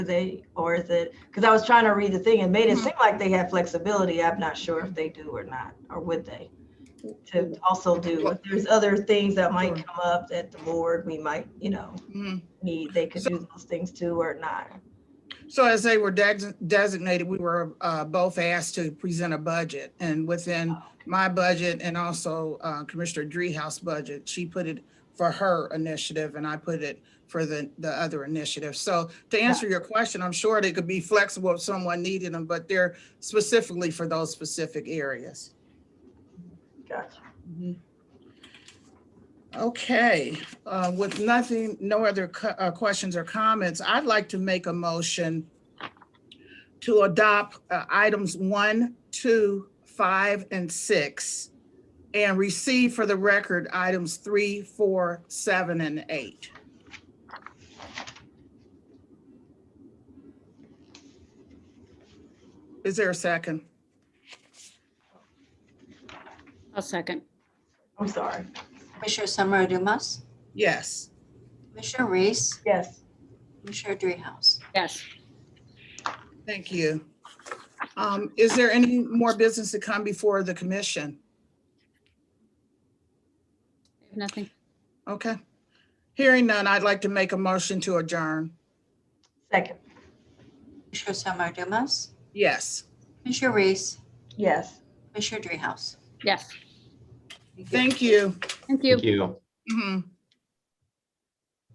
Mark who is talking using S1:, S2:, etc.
S1: they, or is it, because I was trying to read the thing and made it
S2: Mhm.
S1: seem like they had flexibility. I'm not sure if they do or not, or would they? To also do, if there's other things that might
S2: Sure.
S1: come up that the board, we might, you know,
S2: Mhm.
S1: need, they could
S2: So-
S1: do those things too or not.
S2: So as they were des- designated, we were uh, both asked to present a budget. And within my budget and also uh, Commissioner Dreehouse budget, she put it for her initiative and I put it for the, the other initiative. So to answer your question, I'm sure they could be flexible if someone needed them, but they're specifically for those specific areas.
S1: Gotcha.
S2: Okay, uh, with nothing, no other cu- uh, questions or comments, I'd like to make a motion to adopt uh, items one, two, five, and six, and receive for the record items three, four, seven, and eight. Is there a second?
S3: I'll second.
S1: I'm sorry.
S4: Commissioner Summer Dumas,
S2: Yes.
S4: Commissioner Reese,
S1: Yes.
S4: Commissioner Dreehouse.
S3: Yes.
S2: Thank you. Um, Is there any more business to come before the commission?
S3: I have Nothing.
S2: Okay. Hearing none, I'd like to make a motion to adjourn.
S1: Second.
S4: Commissioner Summer Dumas,
S2: Yes.
S4: Commissioner Reese,
S1: Yes.
S4: Commissioner Dreehouse.
S3: Yes.
S2: Thank you.
S3: Thank you.
S5: Thank you.
S2: Mhm.